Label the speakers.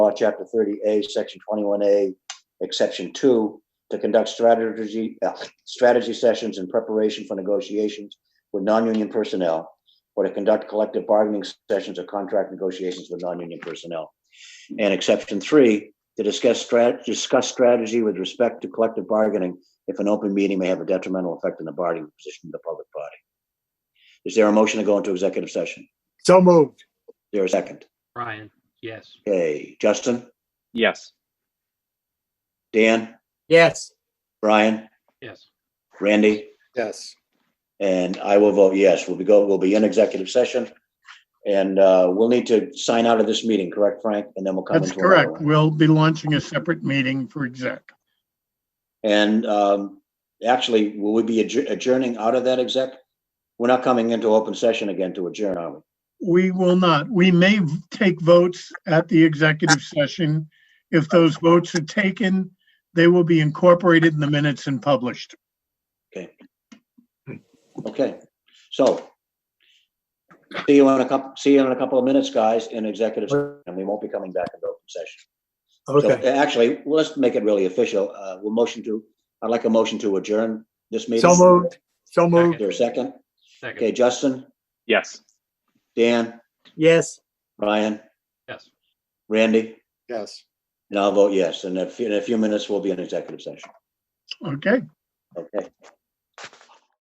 Speaker 1: law, chapter thirty A, section twenty-one A, exception two, to conduct strategy, uh, strategy sessions in preparation for negotiations with non-union personnel, or to conduct collective bargaining sessions or contract negotiations with non-union personnel. And exception three, to discuss strat, discuss strategy with respect to collective bargaining if an open meeting may have a detrimental effect on the bargaining position of the public body. Is there a motion to go into executive session?
Speaker 2: So moved.
Speaker 1: Is There a second?
Speaker 3: Brian, yes.
Speaker 1: Okay, Justin,
Speaker 4: Yes.
Speaker 1: Dan,
Speaker 2: Yes.
Speaker 1: Brian,
Speaker 3: Yes.
Speaker 1: Randy?
Speaker 2: Yes.
Speaker 1: And I will vote yes. We'll be go, we'll be in executive session. And uh, we'll need to sign out of this meeting, correct, Frank? And then we'll come
Speaker 5: That's
Speaker 1: into another
Speaker 5: correct.
Speaker 1: one.
Speaker 5: We'll be launching a separate meeting for exec.
Speaker 1: And um, actually, will we be adjour- adjourning out of that exec? We're not coming into open session again to adjourn, are we?
Speaker 5: We will not. We may v- take votes at the executive session. If those votes are taken, they will be incorporated in the minutes and published.
Speaker 1: Okay, so. See you in a couple, see you in a couple of minutes, guys, in executive, session, and we won't be coming back into open session. So,
Speaker 2: Okay.
Speaker 1: uh, Actually, let's make it really official. Uh, we'll motion to, I'd like a motion to adjourn this meeting.
Speaker 2: So moved. So
Speaker 1: Is
Speaker 2: moved.
Speaker 1: there a second? Okay,
Speaker 3: Second,
Speaker 1: Justin,
Speaker 4: Yes.
Speaker 1: Dan,
Speaker 2: Yes.
Speaker 1: Ryan,
Speaker 3: yes.
Speaker 1: Randy,
Speaker 2: Yes.
Speaker 1: and I'll vote yes. And in a few- in a few minutes, we'll be in executive session.
Speaker 5: Okay?
Speaker 1: Okay.